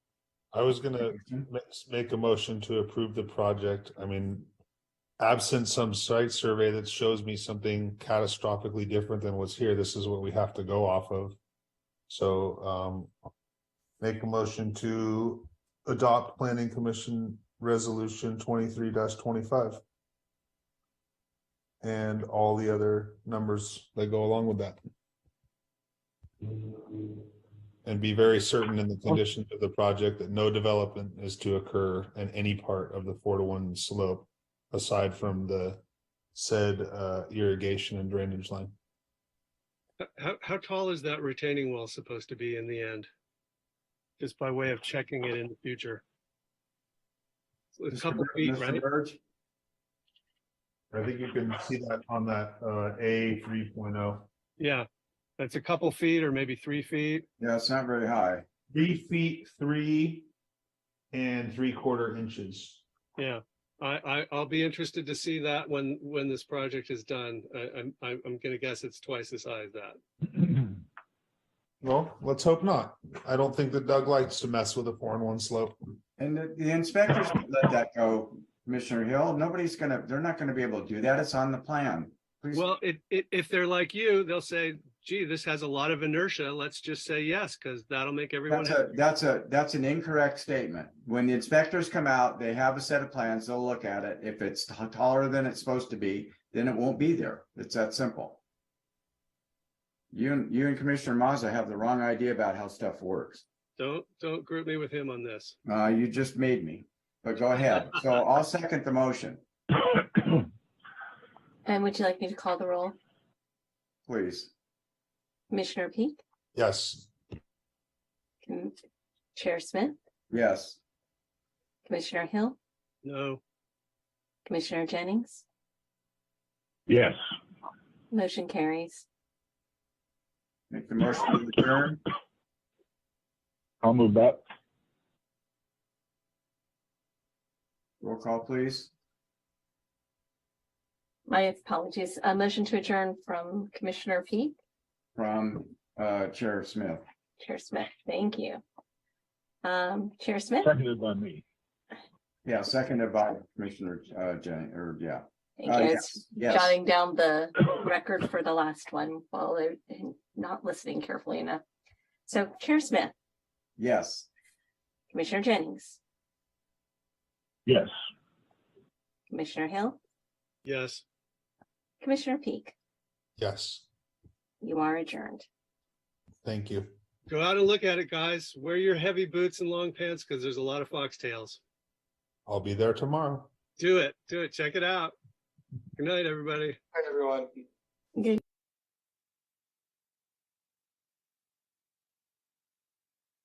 I was gonna ma- make a motion to approve the project. I mean, absent some site survey that shows me something catastrophically different than what's here, this is what we have to go off of. So, um, make a motion to adopt planning commission resolution twenty-three twenty-five. And all the other numbers that go along with that. And be very certain in the conditions of the project that no development is to occur in any part of the four to one slope. Aside from the said uh irrigation and drainage line, How, how tall is that retaining wall supposed to be in the end? Just by way of checking it in the future. A couple feet, right? I think you can see that on that uh A three oh. Yeah, that's a couple feet or maybe three feet. Yeah, it's not very high. Three feet, three and three quarter inches. Yeah, I, I, I'll be interested to see that when, when this project is done. I, I'm, I'm I'm gonna guess it's twice as high as that. Well, let's hope not. I don't think that Doug likes to mess with a four and one slope. And the, the inspectors should let that go, Commissioner Hill. Nobody's gonna, they're not gonna be able to do that. It's on the plan. Please, Well, it, it, if they're like you, they'll say, gee, this has a lot of inertia. Let's just say yes, because that'll make everyone that's a, happy. that's a, that's an incorrect statement. When the inspectors come out, they have a set of plans. They'll look at it. If it's t- taller than it's supposed to be, then it won't be there. It's that simple. You, and you and Commissioner Mazza have the wrong idea about how stuff works. Don't, don't group me with him on this. Uh, you just made me, but go ahead. So I'll second the motion, And Um, would you like me to call the roll? please. Commissioner Peak, Yes, Com- Chair Smith, Yes. Commissioner Hill, No. Commissioner Jennings, Yes. motion carries. Make the motion to adjourn. I'll move that. Roll call, please. My apologies. A motion to adjourn from Commissioner Peak, From uh, Chair Smith. Chair Smith. Thank you. Um, Chair Uh, Smith, Seconded by me. Yeah, seconded by Commissioner uh, Jen, or yeah. thank Uh, you. I was yes, Yes, Jotting down the record for the last one while I'm not listening carefully enough. So Chair Smith, yes. Commissioner Jennings, Yes. Commissioner Hill, Yes. Commissioner Peak, yes, you are adjourned. thank you. Go out and look at it, guys. Wear your heavy boots and long pants because there's a lot of foxtails. I'll be there tomorrow. Do it. Do it. Check it out. Good night, everybody. Hi, everyone.